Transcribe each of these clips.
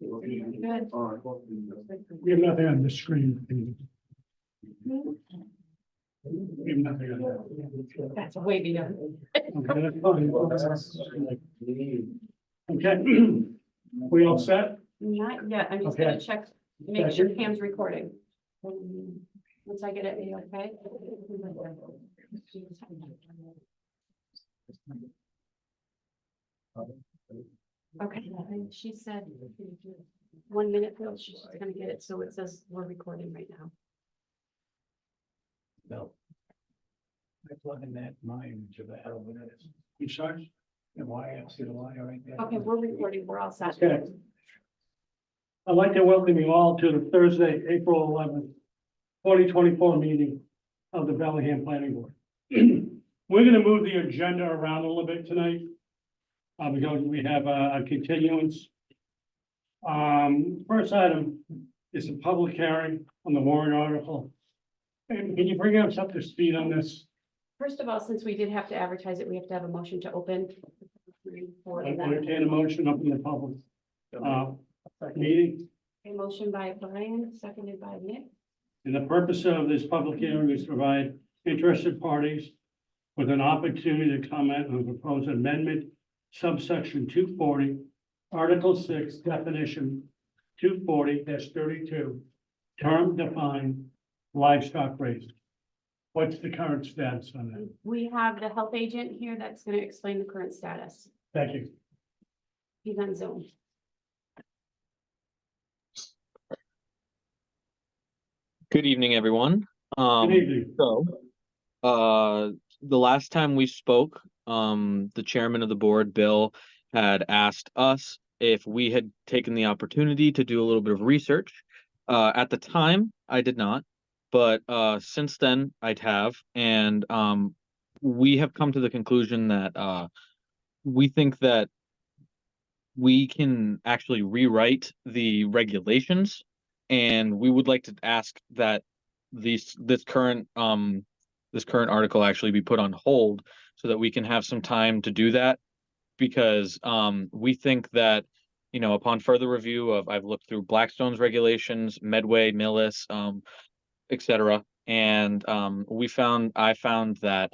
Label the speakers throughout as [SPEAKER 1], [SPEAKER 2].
[SPEAKER 1] Good.
[SPEAKER 2] We have nothing on the screen. We have nothing on that.
[SPEAKER 1] That's way beyond.
[SPEAKER 2] Okay, that's fine. Okay. We all set?
[SPEAKER 1] Not yet, I'm just
[SPEAKER 2] Okay.
[SPEAKER 1] gonna check, make
[SPEAKER 2] Check
[SPEAKER 1] sure
[SPEAKER 2] it.
[SPEAKER 1] Pam's recording. Um, Once I get it, you okay? Okay, she said, one minute, Phil, she's gonna get it, so it says we're recording right now.
[SPEAKER 2] No. I plug in that mine to the hell with it. You sure? And why I see the wire right there.
[SPEAKER 1] Okay, we're recording, we're all set.
[SPEAKER 2] Okay. I'd like to welcome you all to the Thursday, April eleventh, twenty twenty-four meeting of the Bellingham Planning Board. We're gonna move the agenda around a little bit tonight. uh, because we have a a continuance. Um, first item is a public hearing on the warrant article. And can you bring us up to speed on this?
[SPEAKER 1] First of all, since we did have to advertise it, we have to have a motion to open. For
[SPEAKER 2] I
[SPEAKER 1] that.
[SPEAKER 2] entertain a motion up in the public, uh, meeting.
[SPEAKER 1] A motion by Brian, seconded by Nick.
[SPEAKER 2] And the purpose of this public hearing is to provide interested parties with an opportunity to comment on the proposed amendment subsection two forty, article six definition two forty thirty-two, term defined livestock raised. What's the current status on that?
[SPEAKER 1] We have the health agent here that's gonna explain the current status.
[SPEAKER 2] Thank you.
[SPEAKER 1] He's on Zoom.
[SPEAKER 3] Good evening, everyone.
[SPEAKER 2] Good
[SPEAKER 3] Um,
[SPEAKER 2] evening.
[SPEAKER 3] so, uh, the last time we spoke, um, the chairman of the board, Bill, had asked us if we had taken the opportunity to do a little bit of research. Uh, at the time, I did not, but, uh, since then I'd have, and, um, we have come to the conclusion that, uh, we think that we can actually rewrite the regulations and we would like to ask that these this current um this current article actually be put on hold so that we can have some time to do that because um we think that you know upon further review of I've looked through Blackstone's regulations, Medway, Millis, um etc. and um we found I found that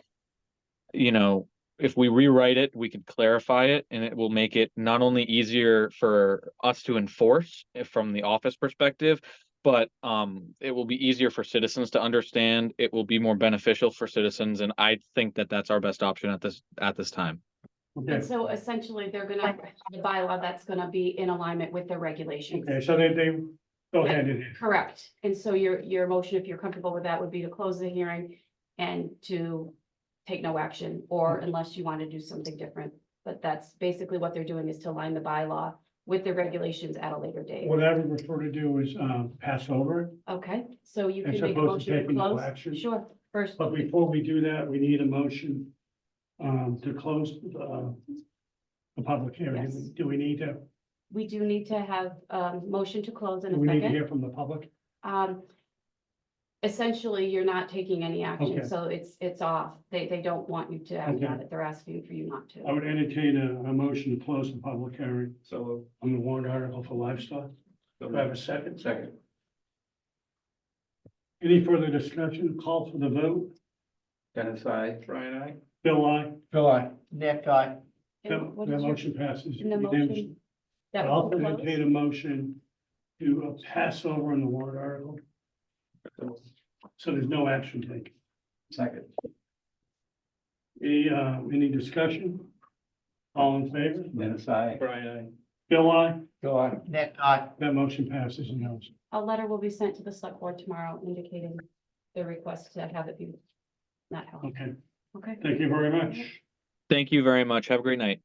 [SPEAKER 3] you know if we rewrite it, we could clarify it and it will make it not only easier for us to enforce eh, from the office perspective, but um, it will be easier for citizens to understand. It will be more beneficial for citizens, and I think that that's our best option at this at this time.
[SPEAKER 2] Okay,
[SPEAKER 1] And so essentially, they're gonna, have the bylaw that's gonna be in alignment with the regulations.
[SPEAKER 2] okay, so they, they go hand in hand.
[SPEAKER 1] Correct. And so your, your motion, if you're comfortable with that, would be to close the hearing and to take no action, or unless you want to do something different. But that's basically what they're doing is to align the bylaw with the regulations at a later date.
[SPEAKER 2] What I would prefer to do is, um, pass over it.
[SPEAKER 1] Okay, so you
[SPEAKER 2] As
[SPEAKER 1] can make a
[SPEAKER 2] opposed to
[SPEAKER 1] motion to
[SPEAKER 2] taking no
[SPEAKER 1] close.
[SPEAKER 2] action?
[SPEAKER 1] Sure, first,
[SPEAKER 2] But before we do that, we need a motion um to close uh the public hearing.
[SPEAKER 1] Yes.
[SPEAKER 2] Do we need to,
[SPEAKER 1] we do need to have a motion to close in
[SPEAKER 2] do
[SPEAKER 1] a
[SPEAKER 2] we need to
[SPEAKER 1] second.
[SPEAKER 2] hear from the public?
[SPEAKER 1] Um, essentially, you're not taking any action,
[SPEAKER 2] Okay.
[SPEAKER 1] so it's, it's off. They, they don't want you to act on
[SPEAKER 2] Okay. Uh,
[SPEAKER 1] it. They're asking for you not to.
[SPEAKER 2] I would entertain a a motion to close the public hearing. So. On the warrant article for livestock. Do I have a second? Second. Any further discussion? Call for the vote.
[SPEAKER 4] Dennis, I. Brian, I.
[SPEAKER 2] Bill, I.
[SPEAKER 4] Bill, I. Nick, I.
[SPEAKER 1] And
[SPEAKER 2] That
[SPEAKER 1] what
[SPEAKER 2] that
[SPEAKER 1] is your-
[SPEAKER 2] motion passes.
[SPEAKER 1] in the
[SPEAKER 2] unanimously.
[SPEAKER 1] motion that
[SPEAKER 2] I'll
[SPEAKER 1] will close?
[SPEAKER 2] entertain a motion to uh, pass over on the warrant article, so there's no action taken.
[SPEAKER 4] Second.
[SPEAKER 2] Any, uh, any discussion? All in favor?
[SPEAKER 4] Dennis, I.
[SPEAKER 2] Brian, Bill, I,
[SPEAKER 4] Bill, I. Nick, I.
[SPEAKER 2] that motion passes and goes.
[SPEAKER 1] A letter will be sent to the select board tomorrow indicating the request to have it be not held.
[SPEAKER 2] Okay,
[SPEAKER 1] Okay.
[SPEAKER 2] thank you very much.
[SPEAKER 3] Thank you very much. Have a great night.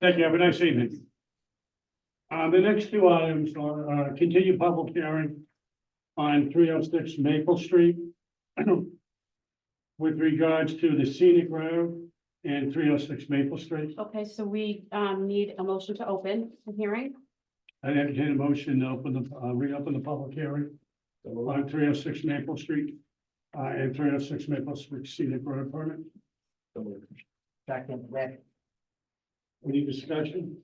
[SPEAKER 2] Thank you. Have a nice evening. Uh, the next two items are, uh, continued public hearing on three oh six Maple Street with regards to the scenic road and three oh six Maple Street.
[SPEAKER 1] Okay, so we um need a motion to open the hearing.
[SPEAKER 2] I entertain a motion to open the, uh, reopen the public hearing. on three oh six Maple Street, uh, and three oh six Maple Street scenic road permit.
[SPEAKER 4] Second, Nick.
[SPEAKER 2] Any discussion?